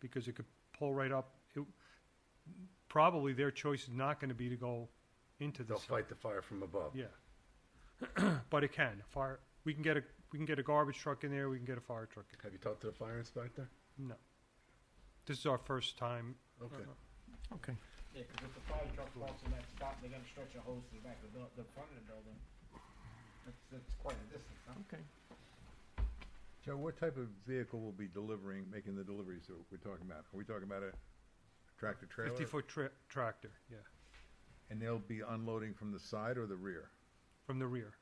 because it could pull right up. It- Probably their choice is not gonna be to go into the They'll site. fight the fire from above. Yeah. But it can, fire, we can get a, we can get a garbage truck in there, we can get a fire truck in Have you talked to the fire inspector? there. No. This is our first time, Okay. Okay. Yeah, because if the fire truck falls in that spot, they gotta stretch a hose to the back of the, buil- the front of the building. That's, that's quite a distance, huh? Okay. Joe, what type of vehicle will be delivering, making the deliveries that we're talking about? Are we talking about a tractor trailer? fifty-foot tra- tractor, yeah, And they'll be unloading from the side or the rear? from the rear.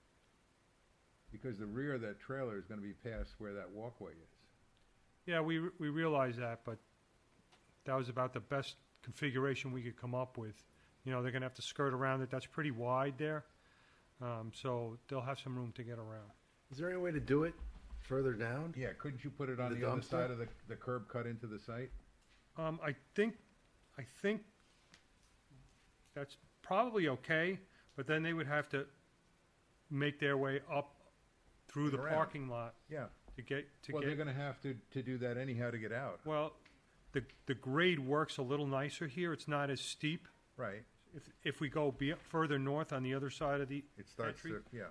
Because the rear of that trailer is gonna be past where that walkway is. Yeah, we, re- we realize that, but that was about the best configuration we could come up with. You know, they're gonna have to skirt around it, that's pretty wide there, um, so they'll have some room to get around. Is there any way to do it further down? Yeah, couldn't you put it on The the other dumpster? side of the, the curb cut into the site? Um, I think, I think that's probably okay, but then they would have to make their way up through the Around. parking lot Yeah. to get, to Well, they're get, gonna have to, to do that anyhow to get out, well, the, the grade works a little nicer here, it's not as steep. right? If, if we go be, further north on the other side of the It starts entry, to, yeah.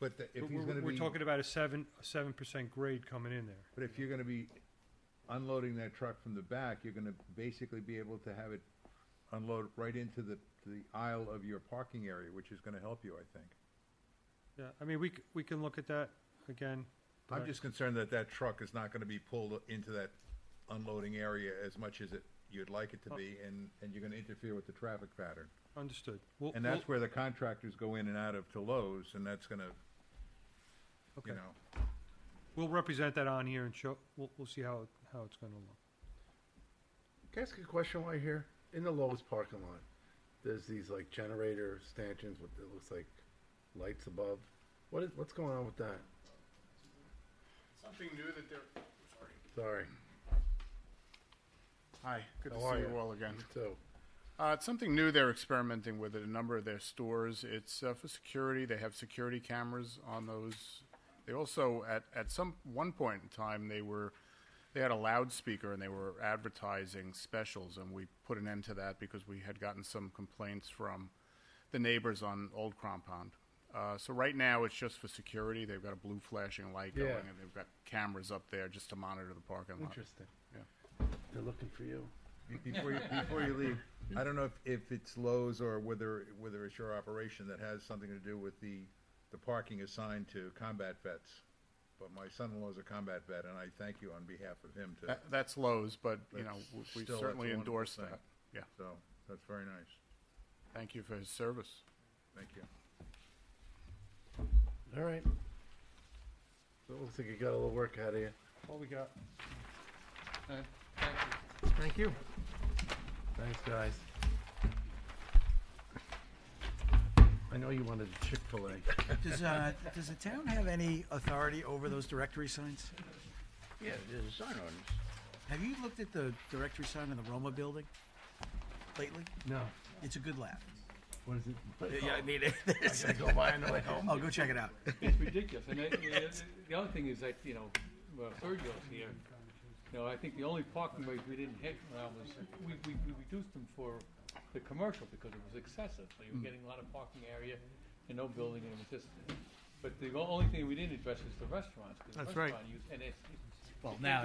But the- if But he's we're, gonna we're be, talking about a seven, a seven percent grade coming in there. but if you're gonna be unloading that truck from the back, you're gonna basically be able to have it unload right into the, to the aisle of your parking area, which is gonna help you, I think. Yeah, I mean, we, c- we can look at that again. but I'm I- just concerned that that truck is not gonna be pulled into that unloading area as much as it, you'd like it to be, and, and you're gonna interfere with the traffic pattern. Understood. We'll- And we'll- that's where the contractors go in and out of to Lowe's, and that's gonna, okay. you know, We'll represent that on here and show, we'll, we'll see how, it- how it's gonna look. Can I ask you a question while you're here? In the Lowe's parking lot, there's these like generator stanchions with, it looks like lights above. What is, what's going on with that? Something new that they're, sorry. Sorry. Hi, good to How are see you ya? all again. You too. Uh, it's something new they're experimenting with at a number of their stores. It's uh, for security. They have security cameras on those. They also, at, at some one point in time, they were they had a loudspeaker and they were advertising specials, and we put an end to that because we had gotten some complaints from the neighbors on Old Compound. Uh, so right now it's just for security. They've got a blue flashing light Yeah. going, and they've got cameras up there just to monitor the parking lot. Interesting. Yeah. They're looking for you. be- before you, before you leave, I don't know if, if it's Lowe's or whether, whether it's your operation that has something to do with the, the parking assigned to combat vets. But my son-in-law's a combat vet, and I thank you on behalf of him to, That, that's Lowe's, but, you know, That's w- we still- that's a certainly wonderful endorse thing. that. Yeah, so, that's very nice, thank you for his service. thank you. All right. So it looks like you got a little work out of you. All we got. Thank you. Thanks, guys. I know you wanted a Chick-fil-A. Does, uh, does the town have any authority over those directory signs? Yeah, there's a sign on Have you looked at the directory sign in the Roma building lately? No. It's a good laugh. What is it? it. Yeah, I mean, I gotta go by on the way home. Oh, go check it out. It's ridiculous, and I- the, the other thing is that, you know, well, Sergio's here, you know, I think the only parking rates we didn't hit when I was, we, we, we reduced them for the commercial because it was excessive, so you were getting a lot of parking area and no building, and it was just, but the only thing we didn't address is the restaurants, because That's right. restaurant use, and it's, it's- Well, now,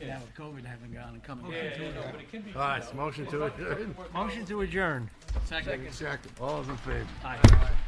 now with COVID having gone and coming. yeah, yeah, no, but it can be. All right, so motion to adjourn. Motion to adjourn. Second. Second. All those in favor? Aye.